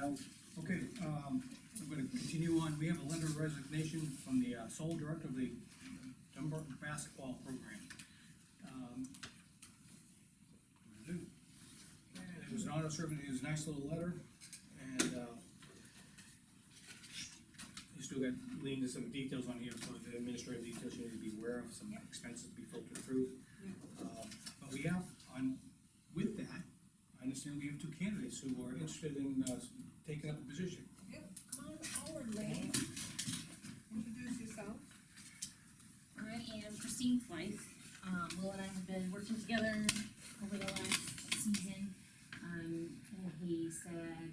out. Okay, um, I'm gonna continue on, we have a letter of resignation from the uh, sole director of the Dunbar basketball program. Um, and It was an honor serving, it was a nice little letter, and, uh, you still got, lean to some details on here, so the administrative details you need to be aware of, some expenses to be filtered through. Um, But we have, on, with that, I understand we have two candidates who are interested in, uh, taking up a position. Yeah, come on forward, lady. Introduce yourself. I am Christine Flight. Um, Will and I have been working together over the last season. Um, and he said,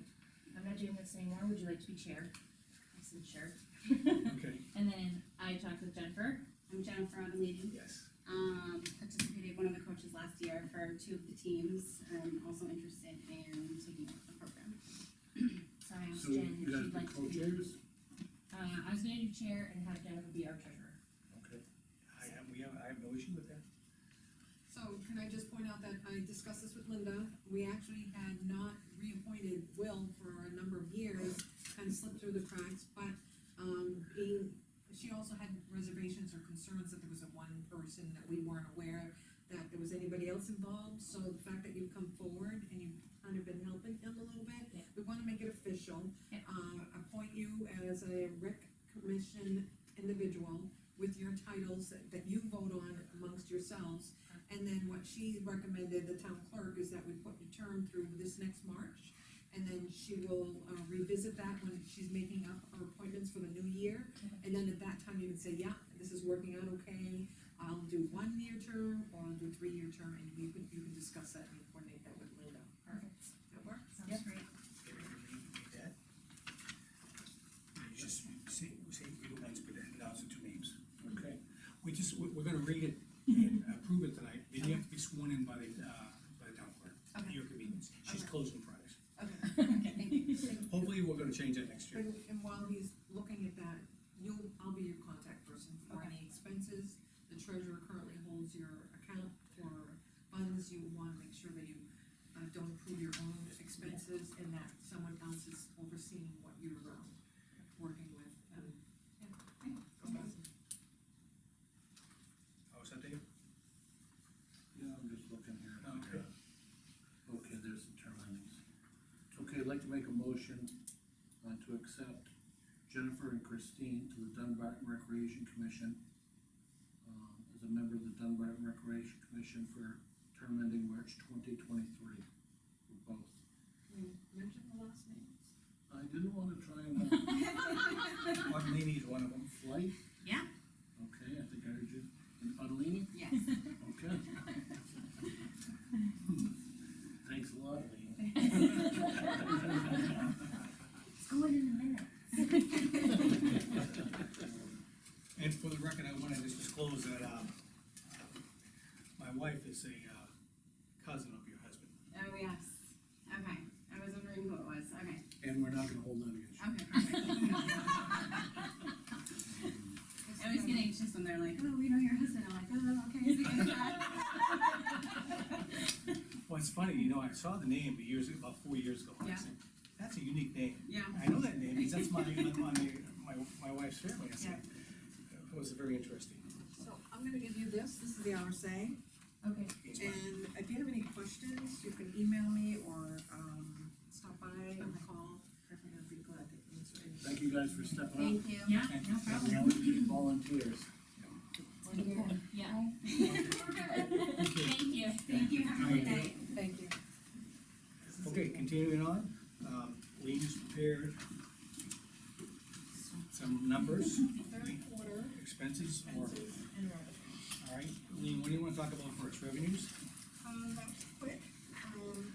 I'm not doing this anymore, would you like to be chair? I said, sure. Okay. And then I talked with Jennifer. I'm Jennifer Avellini. Yes. Um, participated one of the coaches last year for two of the teams. I'm also interested in taking up the program. So I asked So Jen if you guys she'd be like to be. co-chairs? Uh, I was gonna do chair and have Jennifer be our treasurer. Okay. I have, we have, I have no issue with that. So can I just point out that I discussed this with Linda, we actually had not reappointed Will for a number of years, kind of slipped through the cracks, but, um, being, she also had reservations or concerns that there was a one person that we weren't aware that there was anybody else involved, so the fact that you've come forward and you've kind of been helping him a little bit, Yeah. we wanna make it official. Yeah. Uh, appoint you as a rec commission individual with your titles that, that you vote on amongst yourselves. And then what she recommended, the town clerk, is that we put the term through this next March. And then she will uh, revisit that when she's making up her appointments for the new year. And then at that time, you can say, yeah, this is working out okay, I'll do one-year term, or I'll do three-year term, and you can, you can discuss that and coordinate that with Linda. Perfect. That work? Sounds great. You Just say, say it once, but announce it two names. Okay. We just, we're, we're gonna read it and approve it tonight, then you have to be sworn in by the, uh, by the town clerk. at Okay. Your convenience, she's Okay. closing Fridays. Okay. Okay. Hopefully, we're gonna change that next year. And, and while he's looking at that, you'll, I'll be your contact person for any expenses. The treasurer currently holds your account for funds, you wanna make sure that you, uh, don't approve your own expenses, and that someone else is overseeing what you're, um, working with, Um, and. Oh, is that Dave? Yeah, I'm just looking here. Okay. Okay, there's some term endings. Okay, I'd like to make a motion uh, to accept Jennifer and Christine to the Dunbar Recreation Commission um, as a member of the Dunbar Recreation Commission for term ending March twenty twenty-three for both. You mentioned the last name. I didn't want to try and uh, Martin is one of them. flight. Yeah. Okay, I think I heard you. And Adelini? Yes. Okay. Thanks a lot, Lee. It's going in a minute. And for the record, I wanna just disclose that, uh, my wife is a, uh, cousin of your husband. Oh, yes. Okay. I was wondering who it was. Okay. And we're not gonna hold that against you. Okay, perfect. I always get anxious when they're like, oh, we know your husband. I'm like, oh, okay. is it gonna be bad?" Well, it's funny, you know, I saw the name years, about four years ago. and I Yeah. said, That's a unique name. Yeah. I know that name, because that's my, my, my, my wife's family, I said. It was very interesting. So I'm gonna give you this, this is the RSA. Okay. It's my- And if you have any questions, you can email me or, um, stop by and call. I'd be glad to answer any. Thank you guys for stepping up. Thank you. Yeah, no We problem. always need volunteers. We're good. Yeah. Thank you. Thank you. Have a good night. Thank you. Okay, continuing on, um, Lean has prepared some numbers, Third quarter expenses, or, expenses and revenue. all right, Lean, what do you wanna talk about first, revenues? Um, that was quick, um,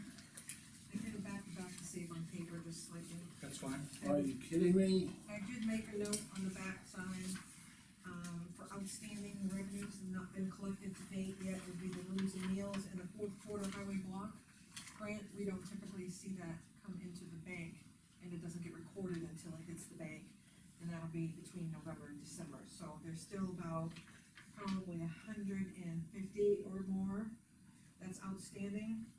I did a back to back to save on paper just slightly. That's fine. Are you kidding me? I did make a note on the back side, um, for outstanding revenues not been collected to date yet would be the rooms and meals and the fourth quarter highway block. Grant, we don't typically see that come into the bank, and it doesn't get recorded until it hits the bank, and that'll be between November and December, so there's still about probably a hundred and fifty or more that's outstanding.